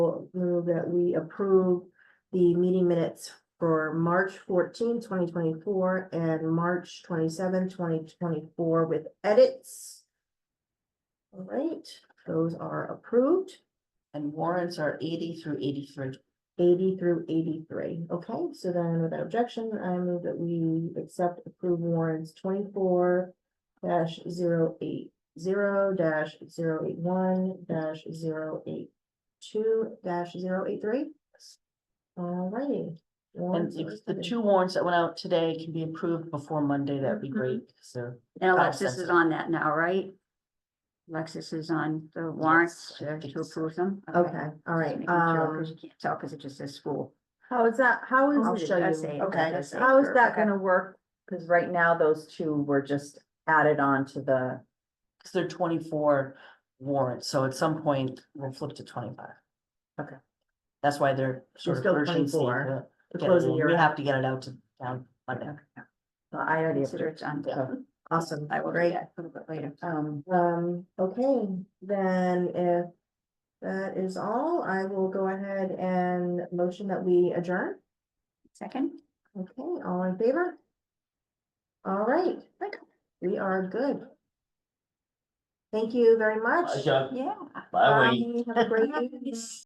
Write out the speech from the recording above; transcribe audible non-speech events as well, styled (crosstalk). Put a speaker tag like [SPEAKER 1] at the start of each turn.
[SPEAKER 1] I'll move that we approve the meeting minutes for March 14, 2024, and March 27, 2024, with edits. All right, those are approved,
[SPEAKER 2] And warrants are eighty through eighty-three.
[SPEAKER 1] eighty through eighty-three. Okay, so then without objection, I move that we accept approve warrants twenty-four dash zero eight zero dash zero eight one dash zero eight two dash zero eight three. Alrighty.
[SPEAKER 2] And
[SPEAKER 1] Warrants are
[SPEAKER 2] if the
[SPEAKER 1] accepted.
[SPEAKER 2] two warrants that went out today can be approved before Monday, that'd be
[SPEAKER 1] Mm-hmm.
[SPEAKER 2] great, so.
[SPEAKER 3] And
[SPEAKER 2] Five
[SPEAKER 3] Alexis
[SPEAKER 2] cents.
[SPEAKER 3] is on that now, right? Alexis is on the warrants
[SPEAKER 2] Yes, I
[SPEAKER 3] uh,
[SPEAKER 2] think
[SPEAKER 3] to
[SPEAKER 2] so.
[SPEAKER 3] approve them.
[SPEAKER 1] Okay, alright, um.
[SPEAKER 3] Because you can't tell because it just says school.
[SPEAKER 1] How is that, how
[SPEAKER 3] I'll
[SPEAKER 1] is it,
[SPEAKER 3] show you. Okay.
[SPEAKER 1] okay, how is that
[SPEAKER 3] Okay.
[SPEAKER 1] gonna work? Cause right now, those two were just added on to the,
[SPEAKER 2] Cause they're twenty-four warrants, so at some point we'll flip to twenty-five.
[SPEAKER 1] Okay.
[SPEAKER 2] That's why they're sort of
[SPEAKER 1] still
[SPEAKER 2] urgency.
[SPEAKER 1] 24.
[SPEAKER 2] to
[SPEAKER 1] the
[SPEAKER 2] get
[SPEAKER 1] close of the
[SPEAKER 2] it in. We
[SPEAKER 1] year.
[SPEAKER 2] have to get it out to town Monday.
[SPEAKER 1] Well, I already
[SPEAKER 3] Consider
[SPEAKER 1] approved,
[SPEAKER 3] it's on.
[SPEAKER 2] Yeah.
[SPEAKER 1] awesome,
[SPEAKER 3] I will read
[SPEAKER 1] great.
[SPEAKER 3] that a little bit later.
[SPEAKER 1] Um, um, okay, then if that is all, I will go ahead and motion that we adjourn.
[SPEAKER 3] Second?
[SPEAKER 1] Okay, all in favor? All right,
[SPEAKER 3] Good.
[SPEAKER 1] we are good. Thank you very much.
[SPEAKER 4] I got,
[SPEAKER 3] Yeah.
[SPEAKER 4] by the way,
[SPEAKER 1] (laughs)
[SPEAKER 3] (laughs)
[SPEAKER 1] Bye, Have a great evening.